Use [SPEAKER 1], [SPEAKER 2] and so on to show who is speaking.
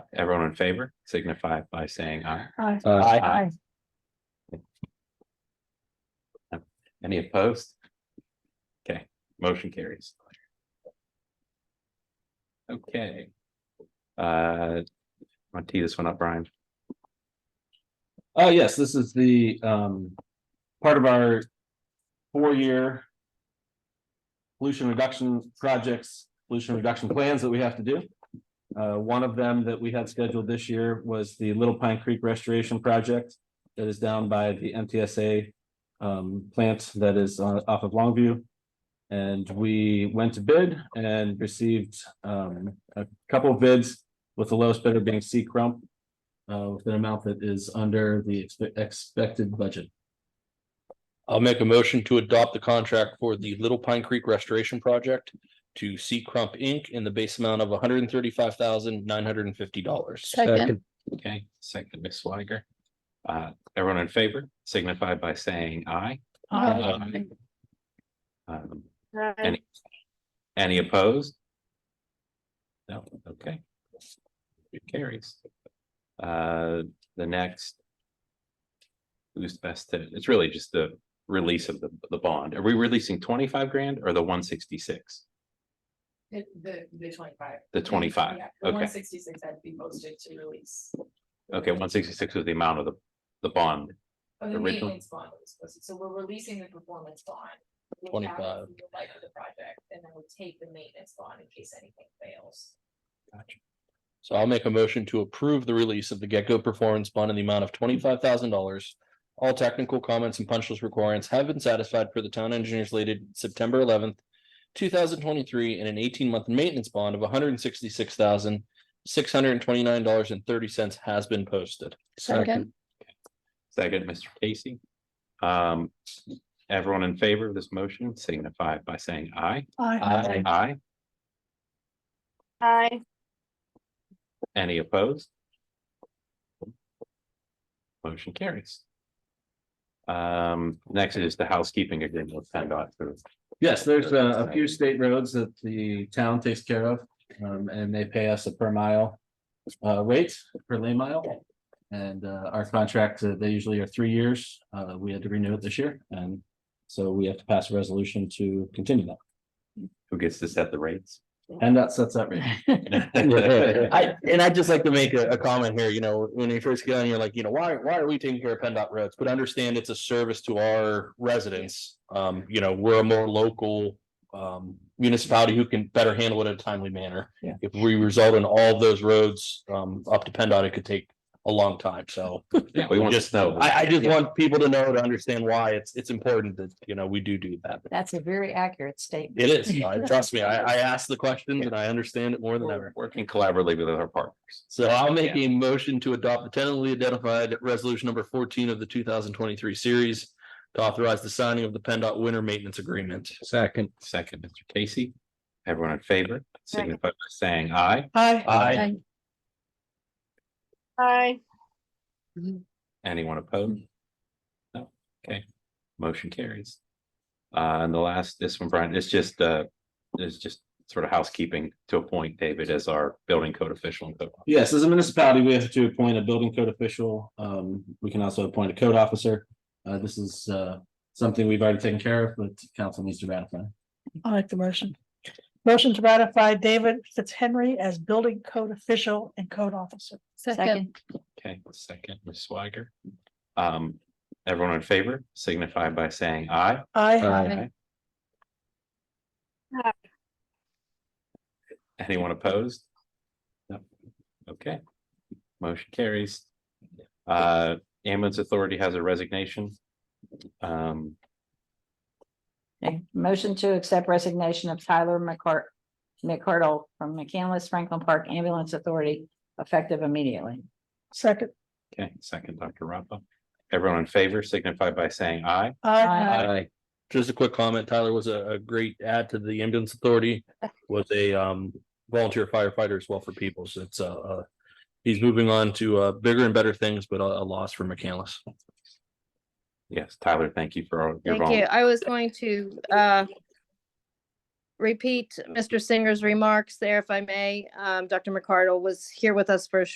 [SPEAKER 1] everyone in favor signify by saying aye.
[SPEAKER 2] Aye.
[SPEAKER 3] Aye.
[SPEAKER 1] Aye. Any opposed? Okay, motion carries. Okay. Uh, want to tee this one up, Brian?
[SPEAKER 3] Uh, yes, this is the, um, part of our four-year pollution reduction projects, pollution reduction plans that we have to do. Uh, one of them that we had scheduled this year was the Little Pine Creek Restoration Project that is down by the MTSA um, plant that is on- off of Longview. And we went to bid and received, um, a couple of bids with the lowest bidder being C Crump uh, with an amount that is under the expe- expected budget.
[SPEAKER 2] I'll make a motion to adopt the contract for the Little Pine Creek Restoration Project to C Crump Inc. in the base amount of one hundred and thirty-five thousand nine hundred and fifty dollars.
[SPEAKER 4] Second.
[SPEAKER 1] Okay, second, Ms. Swiger. Uh, everyone in favor signify by saying aye.
[SPEAKER 4] Aye.
[SPEAKER 1] Um, any, any opposed? No, okay. It carries. Uh, the next. Who's best to, it's really just the release of the, the bond. Are we releasing twenty-five grand or the one sixty-six?
[SPEAKER 5] The, the, the twenty-five.
[SPEAKER 1] The twenty-five,
[SPEAKER 5] Yeah, the
[SPEAKER 1] okay,
[SPEAKER 5] one sixty-six had to be posted to release.
[SPEAKER 1] okay, one sixty-six was the amount of the, the bond.
[SPEAKER 5] Oh, the
[SPEAKER 1] Original.
[SPEAKER 5] maintenance bond was posted, so we're releasing the performance bond. We'll cap it
[SPEAKER 2] 25.
[SPEAKER 5] through the Life of the project, and then we take the maintenance bond in case anything fails.
[SPEAKER 2] So I'll make a motion to approve the release of the Gecko Performance Bond in the amount of twenty-five thousand dollars. All technical comments and punch list requirements have been satisfied for the town engineers dated September eleventh, two thousand twenty-three, and an eighteen-month maintenance bond of one hundred and sixty-six thousand six hundred and twenty-nine dollars and thirty cents has been posted.
[SPEAKER 4] Second.
[SPEAKER 1] Second, Mr. Casey. Um, everyone in favor of this motion signify by saying aye.
[SPEAKER 2] Aye.
[SPEAKER 1] Aye.
[SPEAKER 6] Aye.
[SPEAKER 1] Any opposed? Motion carries. Um, next is the housekeeping agreement with PennDOT. for-
[SPEAKER 3] Yes, there's a, a few state roads that the town takes care of, um, and they pay us a per mile uh, rate per lane mile. And, uh, our contract, uh, they usually are three years. Uh, we had to renew it this year, and so we have to pass a resolution to continue that.
[SPEAKER 1] Who gets to set the rates?
[SPEAKER 3] And that sets that rate.
[SPEAKER 2] I, and I'd just like to make a, a comment here, you know, when you first get on, you're like, you know, why, why are we taking care of PennDOT roads? But understand it's a service to our residents. Um, you know, we're a more local um municipality who can better handle it in a timely manner.
[SPEAKER 3] Yeah.
[SPEAKER 2] If we result in all of those roads um up to PennDOT, it could take a long time. So
[SPEAKER 1] Yeah, we want to know.
[SPEAKER 2] I, I just want people to know to understand why it's, it's important that, you know, we do do that.
[SPEAKER 4] That's a very accurate statement.
[SPEAKER 2] It is, I- trust me, I, I asked the questions and I understand it more than ever.
[SPEAKER 1] We're Working collaboratively with our partners.
[SPEAKER 2] So I'll make a motion to adopt the tentatively identified resolution number fourteen of the two thousand twenty-three series. To authorize the signing of the PennDOT winter maintenance agreement.
[SPEAKER 3] Second.
[SPEAKER 1] Second, Mr. Casey. Everyone in favor signify by saying aye.
[SPEAKER 4] Aye.
[SPEAKER 2] Aye.
[SPEAKER 6] Aye.
[SPEAKER 1] Anyone opposed? No, okay, motion carries. Uh, and the last, this one, Brian, it's just, uh, it's just sort of housekeeping to a point, David, as our building code official. and code-
[SPEAKER 3] Yes, as a municipality, we have to appoint a building code official. Um, we can also appoint a code officer. Uh, this is, uh, something we've already taken care of, but council needs to ratify.
[SPEAKER 7] I'll make the motion. Motion to ratify David Fitzhenry as building code official and code officer.
[SPEAKER 4] Second.
[SPEAKER 1] Okay, second, Ms. Swiger. Um, everyone in favor signify by saying aye.
[SPEAKER 7] I,
[SPEAKER 4] Aye.
[SPEAKER 6] Aye.
[SPEAKER 1] Anyone opposed? No, okay. Motion carries. Uh, ambulance authority has a resignation. Um,
[SPEAKER 4] Okay. Motion to accept resignation of Tyler McCart, McCardle from McCandless Franklin Park Ambulance Authority effective immediately.
[SPEAKER 7] second,
[SPEAKER 1] Okay, second, Dr. Rappa. Everyone in favor signify by saying aye.
[SPEAKER 7] I,
[SPEAKER 2] Aye. Just a quick comment, Tyler was a, a great add to the ambulance authority, was a um volunteer firefighter as well for people, so it's uh, uh. He's moving on to uh bigger and better things, but a, a loss for McCandless.
[SPEAKER 1] Yes, Tyler, thank you for all your
[SPEAKER 6] Thank you.
[SPEAKER 1] volunteer.
[SPEAKER 6] I was going to uh, repeat Mr. Singer's remarks there, if I may. Um, Dr. McCardle was here with us for a